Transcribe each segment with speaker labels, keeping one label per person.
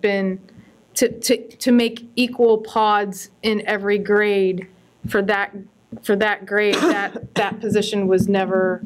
Speaker 1: been to, to, to make equal pods in every grade for that, for that grade, that, that position was never,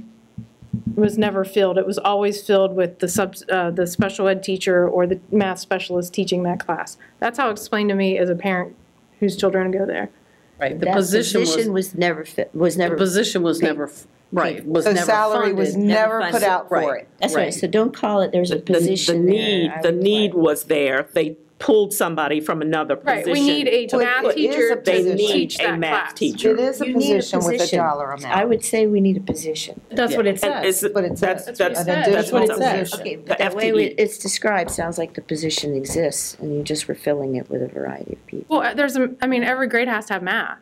Speaker 1: was never filled. It was always filled with the sub, uh, the special ed teacher or the math specialist teaching that class. That's how it explained to me as a parent whose children go there.
Speaker 2: Right, the
Speaker 3: That
Speaker 2: position was,
Speaker 3: Position was never fit, was
Speaker 2: the
Speaker 3: never.
Speaker 2: position was never, f- right, was
Speaker 4: So
Speaker 2: never
Speaker 4: salary was
Speaker 2: funded.
Speaker 4: never
Speaker 3: funded.
Speaker 4: put out for
Speaker 2: Right.
Speaker 4: it.
Speaker 3: That's right,
Speaker 2: Right.
Speaker 3: so don't call it there's a
Speaker 5: the- The
Speaker 3: position
Speaker 5: need,
Speaker 3: there.
Speaker 5: the need was there. They pulled somebody from another
Speaker 1: Right,
Speaker 5: position.
Speaker 1: we need a
Speaker 5: to
Speaker 1: math
Speaker 5: put-
Speaker 1: teacher to
Speaker 5: They
Speaker 4: position.
Speaker 5: need
Speaker 1: teach
Speaker 5: a
Speaker 1: that
Speaker 5: math
Speaker 1: class.
Speaker 4: It
Speaker 5: teacher.
Speaker 4: is a
Speaker 3: You need a
Speaker 4: position with a
Speaker 3: position.
Speaker 4: dollar
Speaker 3: I
Speaker 4: amount.
Speaker 3: would say we need a position.
Speaker 1: That's what it
Speaker 5: And
Speaker 1: says.
Speaker 5: it's-
Speaker 4: But it
Speaker 5: That's,
Speaker 4: says-
Speaker 5: that's,
Speaker 1: An
Speaker 5: that's
Speaker 4: additional
Speaker 5: what it says.
Speaker 4: position.
Speaker 3: Okay,
Speaker 5: The E.
Speaker 3: but the way
Speaker 5: FTE.
Speaker 3: we- it's described sounds like the position exists and you're just refilling it with a variety of people.
Speaker 1: Well, uh, there's, a- I mean, every grade has to have math.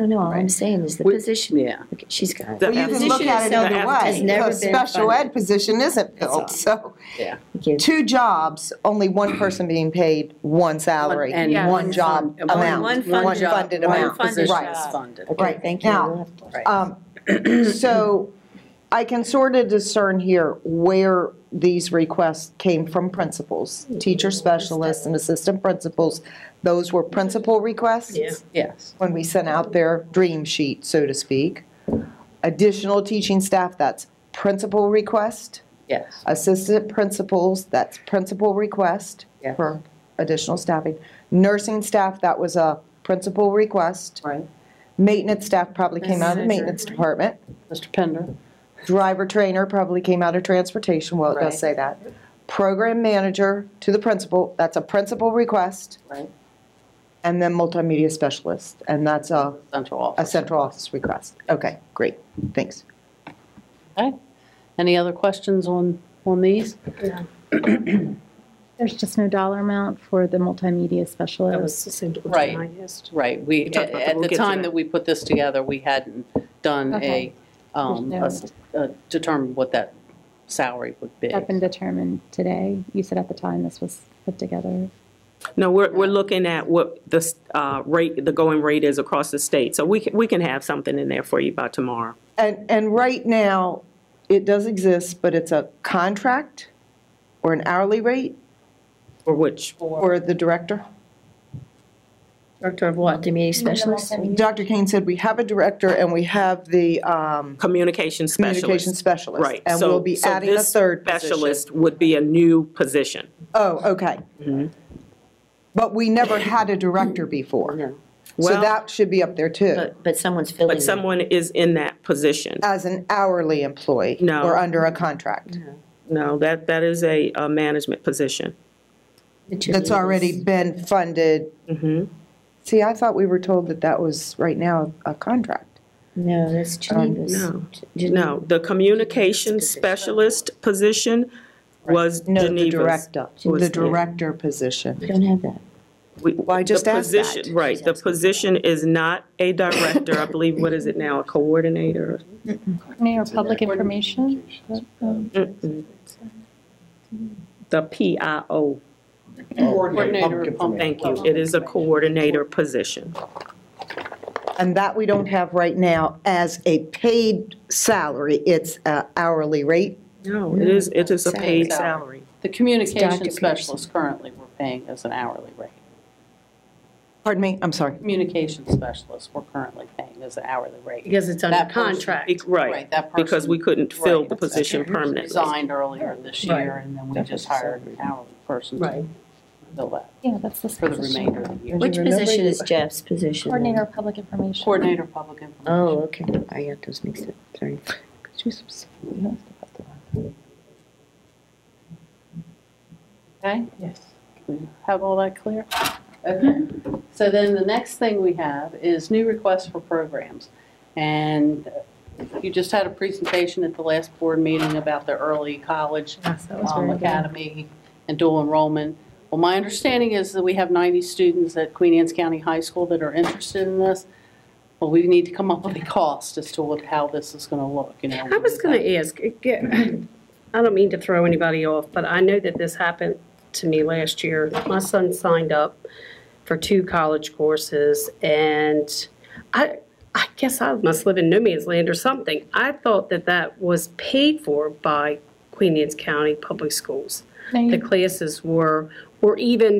Speaker 3: No, no, all I'm saying is the
Speaker 2: We-
Speaker 3: position,
Speaker 2: Yeah,
Speaker 3: Okay, she's got it.
Speaker 5: The
Speaker 4: Well, you can
Speaker 5: position
Speaker 4: look at it either
Speaker 5: itself has
Speaker 4: way,
Speaker 3: never
Speaker 4: because
Speaker 3: been
Speaker 4: special
Speaker 3: funded.
Speaker 4: ed position isn't
Speaker 3: That's all.
Speaker 4: filled, so.
Speaker 3: Okay.
Speaker 4: Two jobs, only one person being paid one salary,
Speaker 2: and
Speaker 1: Yeah.
Speaker 4: one job
Speaker 2: fund-
Speaker 4: amount,
Speaker 2: one
Speaker 4: one
Speaker 2: fund job,
Speaker 4: funded
Speaker 2: one
Speaker 4: amount.
Speaker 2: position is
Speaker 4: Right.
Speaker 2: funded.
Speaker 3: Okay,
Speaker 4: Right,
Speaker 3: thank you.
Speaker 4: now-
Speaker 3: We'll have to-
Speaker 4: Um, So I can sort of discern here where these requests came from principals, teacher specialists and assistant principals. Those were principal requests
Speaker 2: Yes,
Speaker 4: when we sent out their dream sheet, so to speak. Additional teaching staff, that's principal request.
Speaker 2: yes.
Speaker 4: Assistant principals, that's principal request
Speaker 2: Yeah.
Speaker 4: for additional staffing. Nursing staff, that was a principal request.
Speaker 2: Right.
Speaker 4: Maintenance staff probably came out of the maintenance department.
Speaker 2: Mr. Pender?
Speaker 4: Driver trainer probably came out of transportation, well, it
Speaker 2: Right.
Speaker 4: does say that. Program manager to the principal, that's a principal request.
Speaker 2: Right.
Speaker 4: And then multimedia specialist, and that's a,
Speaker 2: Central
Speaker 4: a
Speaker 2: office.
Speaker 4: central office request. Okay, great, thanks.
Speaker 2: Okay. Any other questions on, on these?
Speaker 6: There's just no dollar amount for the multimedia
Speaker 7: That
Speaker 6: specialist.
Speaker 7: was the same
Speaker 2: Right.
Speaker 7: question I asked.
Speaker 2: Right, we,
Speaker 5: talked about that,
Speaker 2: at
Speaker 5: we'll
Speaker 2: the
Speaker 5: get to
Speaker 2: time
Speaker 5: that.
Speaker 2: that we put this together, we hadn't done a,
Speaker 6: Okay.
Speaker 2: um,
Speaker 6: There's
Speaker 2: a
Speaker 6: no-
Speaker 2: s- uh, determined what that salary would be.
Speaker 6: That's been determined today. You said at the time this was put together.
Speaker 5: No, we're, we're looking at what the s- uh, rate, the going rate is across the state. So we can, we can have something in there for you by tomorrow.
Speaker 4: And, and right now, it does exist, but it's a contract or an hourly rate
Speaker 5: Or which,
Speaker 4: for the director?
Speaker 2: Director of what?
Speaker 3: Multimedia specialist?
Speaker 4: Dr. Kane said we have a director and we have the um,
Speaker 5: communication specialist.
Speaker 4: communication specialist.
Speaker 5: Right.
Speaker 4: And
Speaker 5: So-
Speaker 4: we'll be
Speaker 5: so
Speaker 4: adding a
Speaker 5: this
Speaker 4: third position.
Speaker 5: Specialist would be a new position.
Speaker 4: Oh, okay.
Speaker 5: Mm-hmm.
Speaker 4: But we never had a director before.
Speaker 3: No.
Speaker 4: So
Speaker 5: Well-
Speaker 4: that should be up there too,
Speaker 3: But, but someone's filling
Speaker 5: But
Speaker 3: it.
Speaker 5: someone is in that position.
Speaker 4: as an hourly employee.
Speaker 5: No.
Speaker 4: Or under a contract
Speaker 5: No, that, that is a, a management position.
Speaker 4: that's already been funded.
Speaker 5: Mm-hmm.
Speaker 4: See, I thought we were told that that was right now a contract.
Speaker 3: No, that's Geneva's.
Speaker 5: no.
Speaker 3: Geneva's.
Speaker 5: No,
Speaker 4: Mm.
Speaker 5: the communication specialist position was
Speaker 4: No, the
Speaker 5: Geneva's.
Speaker 4: director,
Speaker 5: was
Speaker 4: the
Speaker 5: the-
Speaker 4: director position.
Speaker 3: We don't have that.
Speaker 5: We-
Speaker 4: Well, I
Speaker 5: the
Speaker 4: just asked that.
Speaker 5: position- Right, the position is not a director, I believe, what is it now, a coordinator?
Speaker 6: Mayor, public information?
Speaker 5: Mm-mm. The PIO,
Speaker 2: Coordinator of Public-
Speaker 5: thank you, it is a coordinator position.
Speaker 4: And that we don't have right now as a paid salary. It's a hourly rate.
Speaker 5: No, it is, it is a paid
Speaker 2: Salary.
Speaker 5: salary.
Speaker 2: The communication specialist currently we're paying as an hourly rate.
Speaker 4: Pardon me, I'm sorry.
Speaker 2: Communication specialist we're currently paying as an hourly rate.
Speaker 7: Because it's
Speaker 2: That
Speaker 7: under
Speaker 2: person-
Speaker 7: contract.
Speaker 5: Be- Right,
Speaker 2: that person.
Speaker 5: because we couldn't fill the
Speaker 2: Right.
Speaker 5: position permanently.
Speaker 2: Resigned earlier this year, and then we just hired an hourly person to
Speaker 7: Right.
Speaker 2: fill that
Speaker 6: Yeah, that's the.
Speaker 2: for the
Speaker 6: position.
Speaker 2: remainder of the year.
Speaker 3: Which position is Jeff's position? then?
Speaker 6: Coordinator of public information.
Speaker 2: Coordinator of Public Information.
Speaker 3: Oh, okay, I got those mixed up, sorry.
Speaker 2: Okay? Yes. Have all that clear? Okay. So then the next thing we have is new requests for programs. And you just had a presentation at the last board meeting about the early college
Speaker 6: Yes, that was
Speaker 2: um,
Speaker 6: very good.
Speaker 2: academy and dual enrollment. Well, my understanding is that we have 90 students at Queen Anne's County High School that are interested in this. Well, we need to come up with a cost as to what, how this is going to look, you know.
Speaker 7: I was going to ask, it get- I don't mean to throw anybody off, but I know that this happened to me last year. My son signed up for two college courses, and I, I guess I must live in no man's land or something. I thought that that was paid for by Queen Anne's County Public Schools.
Speaker 6: No,
Speaker 7: The
Speaker 6: you-
Speaker 7: classes were
Speaker 5: or even